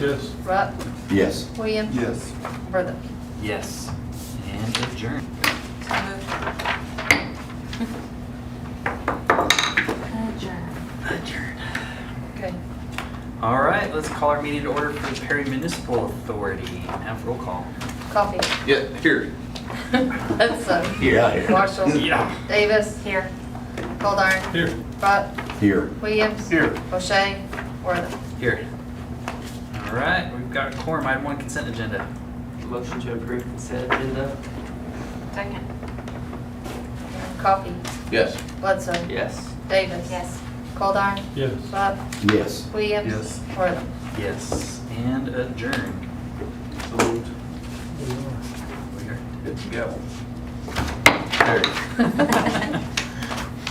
Yes. Rupp, Yes. Williams. Yes. Brother. Yes. And adjourn. Adjourn. Okay. All right, let's call our meeting to order for the Perry Municipal Authority. Have roll call. Coffee. Yeah, here. Hudson. Yeah. Marshall. Yeah. Davis. Here. Goldar. Here. Rupp, Here. Williams. Here. O'Shea. Worthing. Here. All right, we've got quorum. Item one, consent agenda. Motion to approve consent agenda? Second. Coffee. Yes. Bloodson. Yes. Davis. Yes. Goldar. Yes. Rupp, Yes. Williams. Yes. Worthing. Yes. And adjourn. So moved. We are- Hit the gavel.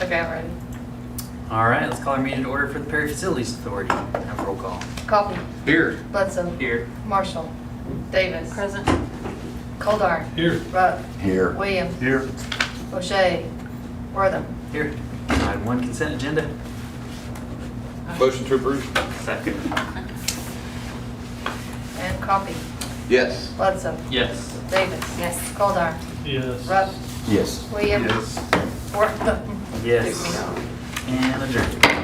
Okay, I'm ready. All right, let's call our meeting to order for the Perry Facilities Authority. Have roll call. Coffee. Here. Bloodson. Here. Marshall. Davis. Present. Goldar. Here. Rupp, Here. Williams. Here. O'Shea. Worthing. Here. Item one, consent agenda. Motion to approve. Second. And Coffee. Yes. Bloodson. Yes. Davis. Yes. Goldar. Yes. Rupp. Yes. Williams. Worthing. Yes. Took me off. And adjourn.